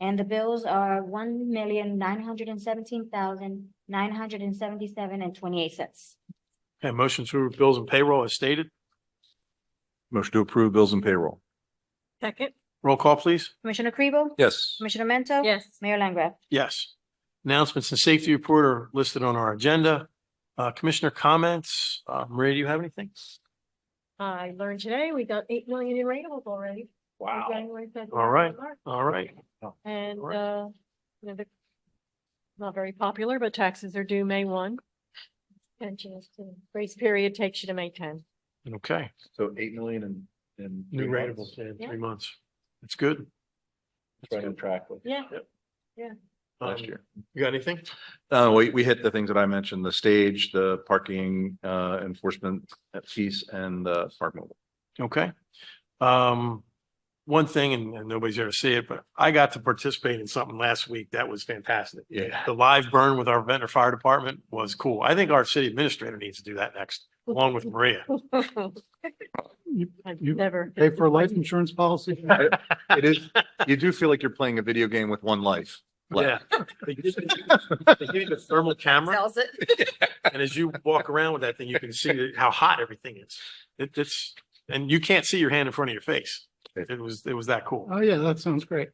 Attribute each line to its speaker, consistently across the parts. Speaker 1: And the bills are one million nine hundred and seventeen thousand nine hundred and seventy-seven and twenty-eight cents.
Speaker 2: Okay, motion to approve bills and payroll as stated.
Speaker 3: Motion to approve bills and payroll.
Speaker 4: Second?
Speaker 2: Roll call, please.
Speaker 1: Commissioner Kribel?
Speaker 3: Yes.
Speaker 1: Commissioner Mento?
Speaker 4: Yes.
Speaker 1: Mayor Langgraf?
Speaker 2: Yes. Announcements and safety report are listed on our agenda. Uh, Commissioner comments. Uh, Maria, do you have anything?
Speaker 4: I learned today we got eight million in rainables already. for January, February,
Speaker 2: right.
Speaker 4: March.
Speaker 2: All right.
Speaker 4: And,
Speaker 2: All right.
Speaker 4: uh, you know, the, not very popular, but taxes are due May one. And just the grace period takes you to May ten.
Speaker 2: Okay.
Speaker 3: So eight million and, and.
Speaker 2: New rateables in
Speaker 4: Yeah.
Speaker 2: three months. That's good.
Speaker 3: Right on track with
Speaker 4: Yeah.
Speaker 3: last
Speaker 2: Um,
Speaker 3: year.
Speaker 2: You got anything?
Speaker 3: Uh, we, we hit the things that I mentioned, the stage, the parking, uh, enforcement piece and the park mobile.
Speaker 2: Okay. Um, one thing, and, and nobody's here to see it, but I got to participate in something last week. That was fantastic.
Speaker 3: Yeah.
Speaker 2: The live burn with our Ventnor Fire Department was cool. I think our city administrator needs to do that next, along with Maria.
Speaker 4: I've
Speaker 2: you-
Speaker 4: never.
Speaker 5: Pay for a life insurance policy?
Speaker 3: It is, you do feel like you're playing a video game with one life.
Speaker 2: Yeah.
Speaker 3: left.
Speaker 2: They give you the thermal camera,
Speaker 4: Sells it.
Speaker 2: and as you walk around with that thing, you can see how hot everything is. It, it's, and you can't see your hand in front of your face. It was, it was that cool.
Speaker 5: Oh, yeah, that sounds great.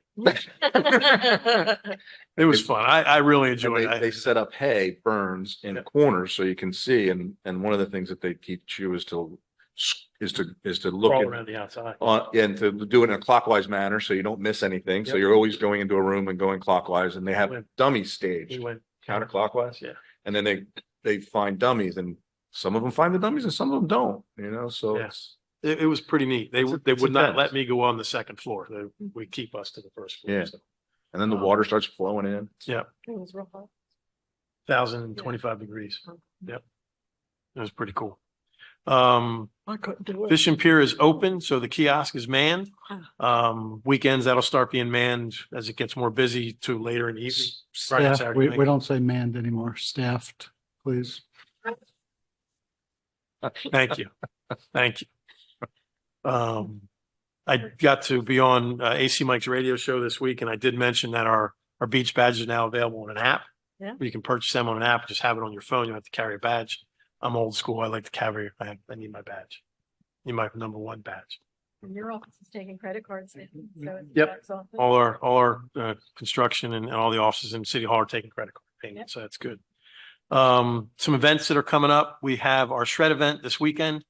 Speaker 2: It was fun. I, I really
Speaker 3: And
Speaker 2: enjoyed
Speaker 3: they, they
Speaker 2: it.
Speaker 3: set up hay burns in
Speaker 2: Yeah.
Speaker 3: corners so you can see. And, and one of the things that they teach you is to, s- is to, is to
Speaker 2: I
Speaker 3: look
Speaker 2: crawled
Speaker 3: at
Speaker 2: around the outside.
Speaker 3: on, and to do it in a clockwise manner, so you don't miss anything. So
Speaker 2: Yep.
Speaker 3: you're always going into a room and going clockwise and they have
Speaker 2: Win.
Speaker 3: dummy
Speaker 2: We
Speaker 3: stage
Speaker 2: went
Speaker 3: counterclockwise.
Speaker 2: Yeah.
Speaker 3: And then they, they find dummies and some of them find the dummies and some of them don't, you know, so
Speaker 2: Yeah.
Speaker 3: it's,
Speaker 2: It, it was pretty neat. They,
Speaker 3: It's a-
Speaker 2: would- they
Speaker 3: it's a
Speaker 2: would not let
Speaker 3: fence.
Speaker 2: me go on the second floor. They would keep us to the first floor.
Speaker 3: Yeah. and
Speaker 2: Um,
Speaker 3: then the
Speaker 4: Oh.
Speaker 3: water starts flowing in.
Speaker 4: It was real hot.
Speaker 2: Thousand and twenty-five degrees. Yep. It was pretty cool. Um,
Speaker 4: I couldn't do it.
Speaker 2: Fish and Pier is open, so the kiosk is manned. Um, weekends, that'll start being manned as it gets more busy to later in the evening. Friday,
Speaker 5: Staff,
Speaker 2: Saturday
Speaker 5: we,
Speaker 2: night.
Speaker 5: we don't say manned anymore, staffed, please.
Speaker 2: Thank you. Thank you. Um, I got to be on uh, AC Mike's radio show this week and I did mention that our, our beach badge is now available on an app.
Speaker 4: Yeah.
Speaker 2: You can purchase them on an app, just have it on your phone. You don't have to carry a badge. I'm old school. I like to carry, I, I need my badge. Need my number one badge.
Speaker 4: And your office is taking credit cards. now, so it's
Speaker 2: Yep.
Speaker 4: tax office.
Speaker 2: All our, all our, uh, construction and and all the offices in City Hall are taking credit card payments, so that's good. Um, some events that are coming up, we have our shred event this weekend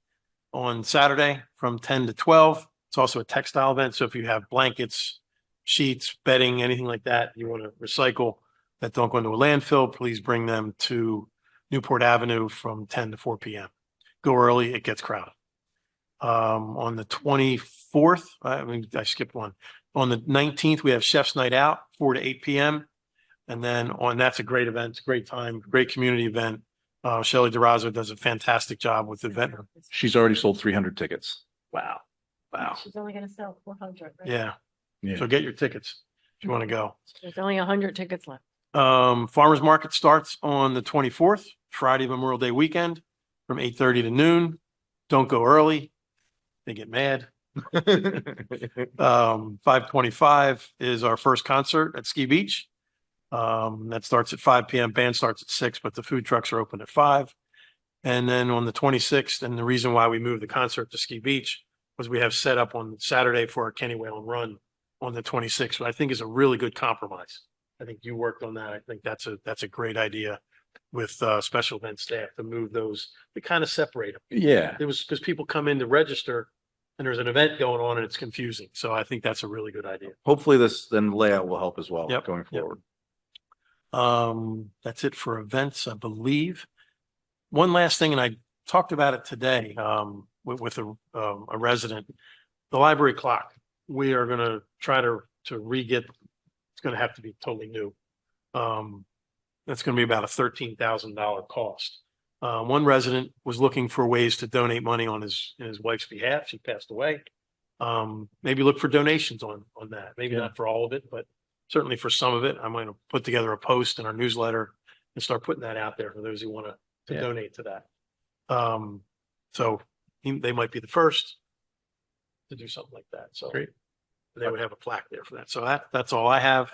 Speaker 2: on Saturday from ten to twelve. It's also a textile event, so if you have blankets, sheets, bedding, anything like that, you want to recycle that don't go into a landfill, please bring them to Newport Avenue from ten to four P M. Go early, it gets crowded. Um, on the twenty-fourth, uh, I mean, I skipped one. On the nineteenth, we have Chef's Night Out, four to eight PM. And then on, that's a great event, it's a great time, great community event. Uh, Shelley DeRosa does a fantastic job with the event.
Speaker 3: She's already sold three hundred tickets.
Speaker 2: Wow. Wow.
Speaker 4: She's only gonna sell four hundred.
Speaker 2: Yeah.
Speaker 3: Yeah.
Speaker 2: So get your tickets if you want to go.
Speaker 4: There's only a hundred tickets left.
Speaker 2: Um, farmer's market starts on the twenty-fourth, Friday Memorial Day weekend from eight thirty to noon. Don't go early. They get mad. Um, five twenty-five is our first concert at Ski Beach. Um, that starts at five PM. Band starts at six, but the food trucks are open at five. And then on the twenty-sixth, and the reason why we moved the concert to Ski Beach was we have set up on Saturday for our Kenny Whalen run on the twenty-sixth, which I think is a really good compromise. I think you worked on that. I think that's a, that's a great idea with, uh, special event staff to move those, to kind of separate them
Speaker 3: Yeah.
Speaker 2: it was because people come in to register and there's an event going on and it's confusing. So I think that's a really good idea.
Speaker 3: Hopefully this then layout will help as well
Speaker 2: Yep,
Speaker 3: going
Speaker 2: yep.
Speaker 3: forward.
Speaker 2: Um, that's it for events, I believe. One last thing, and I talked about it today, um, with, with a, um, a resident. The library clock, we are gonna try to, to re-get, it's gonna have to be totally new. Um, that's gonna be about a thirteen thousand dollar cost. Uh, one resident was looking for ways to donate money on his, in his wife's behalf. She passed away. Um, maybe look for donations on, on that. Maybe
Speaker 3: Yeah.
Speaker 2: not for all of it, but certainly for some of it, I'm going to put together a post in our newsletter and start putting that out there for those who want to, to
Speaker 3: Yeah.
Speaker 2: donate to that. Um, so he- they might be the first to do something like that. So
Speaker 3: Great.
Speaker 2: they would have a plaque there for that. So that, that's all I have.